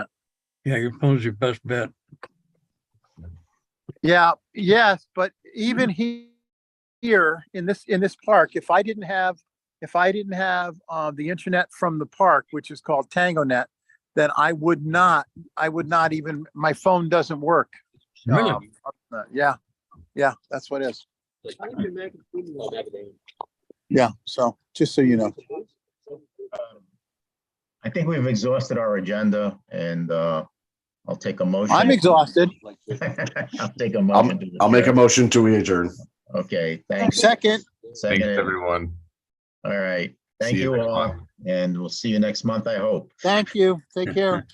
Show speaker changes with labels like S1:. S1: Yeah, your phone's your best bet.
S2: Yeah, yes, but even he, here in this, in this park, if I didn't have, if I didn't have, uh, the internet from the park, which is called TangoNet, then I would not, I would not even, my phone doesn't work.
S1: Really?
S2: Um, uh, Yeah, yeah, that's what it is. Yeah, so just so you know.
S3: I think we've exhausted our agenda and uh, I'll take a motion.
S2: I'm exhausted.
S3: I'll take a motion. to
S4: I'll make a
S3: adjourn.
S4: motion to adjourn.
S3: Okay, thanks.
S2: Second,
S5: Thanks,
S3: Second,
S5: everyone.
S3: all right. Thank
S5: See you
S3: you
S5: next
S3: all,
S5: month.
S3: and we'll see you next month, I hope.
S2: thank you. Take care.